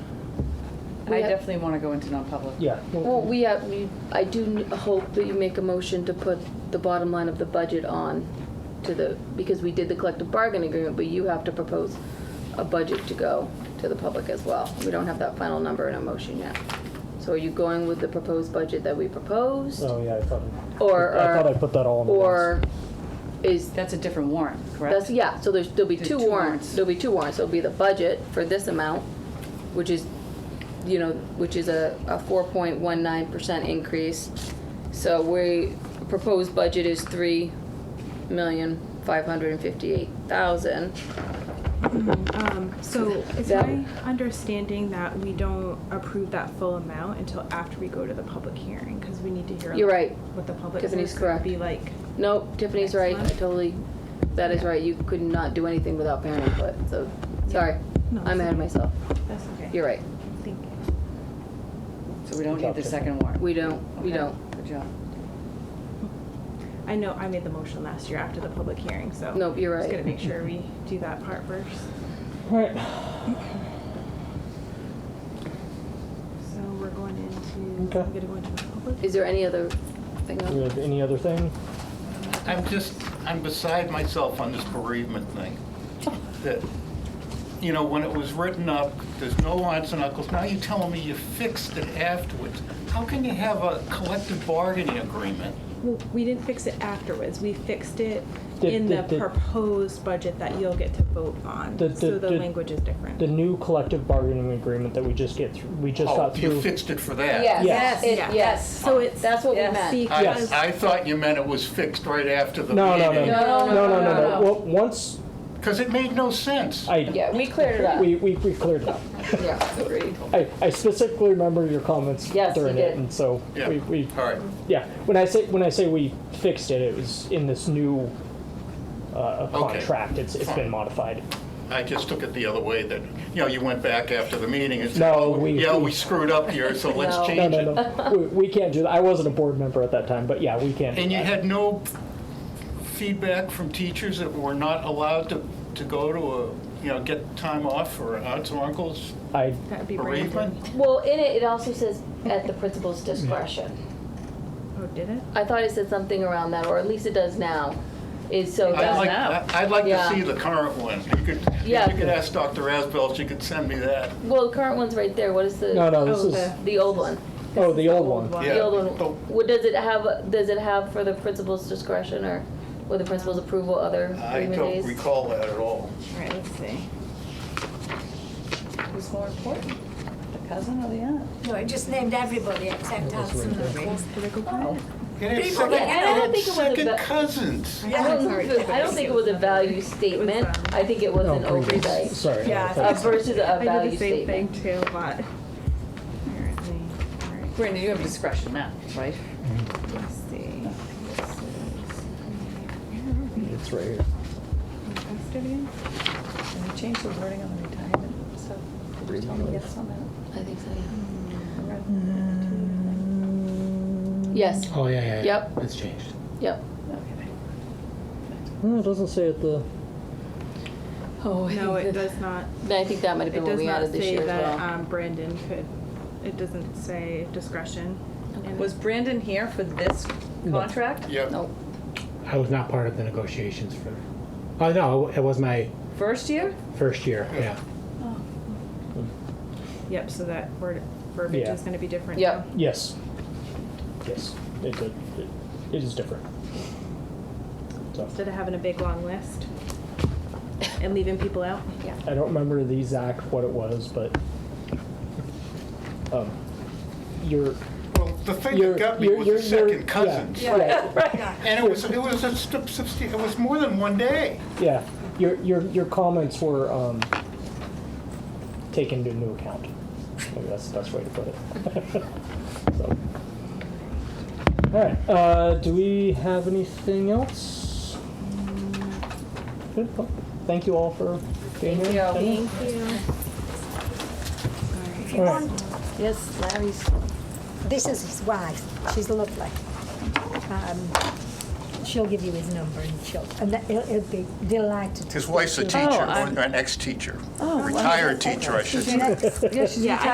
we I have- definitely want to go into non-public. Yeah. Well, we have, we, I do n- hope that you make a motion to put the bottom line of the budget on to the, because we did the collective bargain agreement, but you have to propose a budget to go to the public as well. We don't have that final number in our motion yet. So are you going with the proposed budget that we proposed? Oh, yeah, I thought, Or, I thought I or, put that all in. the or is, That's a different warrant, correct? that's, yeah, so there's, there'll be There's two two warrants. warrants. There'll be two warrants. There'll be the budget for this amount, which is, you know, which is a, a four point one nine percent increase. So we, proposed budget is three million, five hundred and fifty-eight thousand. Um, so it's Mm-hmm. That- my understanding that we don't approve that full amount until after we go to the public hearing, because we need to hear. You're right. What the public. Tiffany's is gonna correct. Be like, Nope, Tiffany's right. I Excellent. totally, that is right. You could not do anything without parent input, so, sorry. No, I'm ahead it's of okay. myself. that's okay. You're right. Thank you. So we don't need the second warrant? We don't, we Okay, don't. Good job. I know I made the motion last year after the public hearing, so. Nope, you're Just right. gonna make sure we do that part first. Right. So we're going into, Okay. I'm gonna go into the public. Is there any other thing? Do we else? have any other thing? I'm just, I'm beside myself on this bereavement thing. That, you know, when it was written up, there's no aunts and uncles, now you're telling me you fixed it afterwards. How can you have a collective bargaining agreement? Well, we didn't fix it afterwards. We fixed it Did- in the did- did- proposed budget that you'll get to vote on. Did- So did- the did- language is different. The new collective bargaining agreement that we just get, through we just Oh, got you through. fixed it for that? Yes. It- Yeah. Yes. So it's. That's what we it's meant. I, Because. I thought you meant it was fixed right after the No, no, no. meeting. No, no, No, no, no, no, no. no. Well, once Because it made no sense. I, Yeah, we cleared it up. we, we we cleared it up. Yeah, agreed. I, I specifically remember your comments Yes, you during did. it, and so Yeah, we, we, all right. yeah. When I say, when I say we fixed it, it was in this new, uh, Okay. contract. It's, it's been Fine. modified. I just took it the other way that, you know, you went back after the meeting and said, No, oh, we- yeah, we screwed up here, so let's No. change No, it. no, no. We, we can't do that. I wasn't a board member at that time, but yeah, we can't. do And you that. had no feedback from teachers that were not allowed to, to go to a, you know, get time off for aunts and uncles I, That'd be Brandon. bereavement? Well, in it, it also says at the principal's discretion. Oh, did it? I thought it said something around that, or at least it does now, is so I'd like, that, I- I'd like Yeah. to see the current one. You could, if Yeah. you could ask Dr. Asbell, if she could send me that. well, the current one's right there, what is no, the, no, this Oh, is, the- the old one? oh, the old one. Yeah. Oh. The old one, but- what, does it have, does it have for the principal's discretion, or with the principal's approval, other I agreement don't days? recall that at all. All right, let's see. Who's more important, the cousin or the aunt? No, I just named everybody except us and the fourth. And it's People second, get- I and don't think it's it was second about- cousins. I don't, I don't think it was a value uh, statement, I think it was No, an previous. oversight, Sorry. Yeah, I I thought- uh, versus a I value did the same statement. thing too, but. Apparently, all right, Brandon, you have discretion now, right? let's see. This is- It's right here. Can I post it again? Can we change the wording on the retirement stuff? Did you tell me yes on that? I think so, yeah. Two, Mm. Yes, Oh, yeah, yeah, yeah. Yep. It's changed. yep. Okay. No, it doesn't say at the, Oh, three. No, it does not, I think that might have it been what does we not added this say year as that well. um, Brandon could, it doesn't say discretion. in it. Was Brandon here for this contract? Yeah, Nope. I was not part of the negotiations for. Oh no, it was my First year? first year. Yeah. Yep, so that word, verbiage Yeah. is gonna be different. Yep. now. yes. Yes, it did. It, it is different. So, Instead of having a big long list and leaving people out. I don't remember the exact what it was, but, um, your, well, the thing your, that got me your, was your, the your. second cousins. Yeah, right. And it was, it was, a stu- substan- it was more than one day. Yeah, your, your, your comments were, um, taken into account. Maybe that's the best way to put it. So. All right, uh, do we have anything else? Good, well, thank you all for being here. Thank you. If you want, Yes, Larry's. this is his wife. She's lovely. Um, She'll give you his number and she'll, and that- he'll, he'll be delighted. to His speak wife's a to you. teacher, or an ex-teacher, retired teacher, I should say. She's an ex- Yeah, she's Yeah, I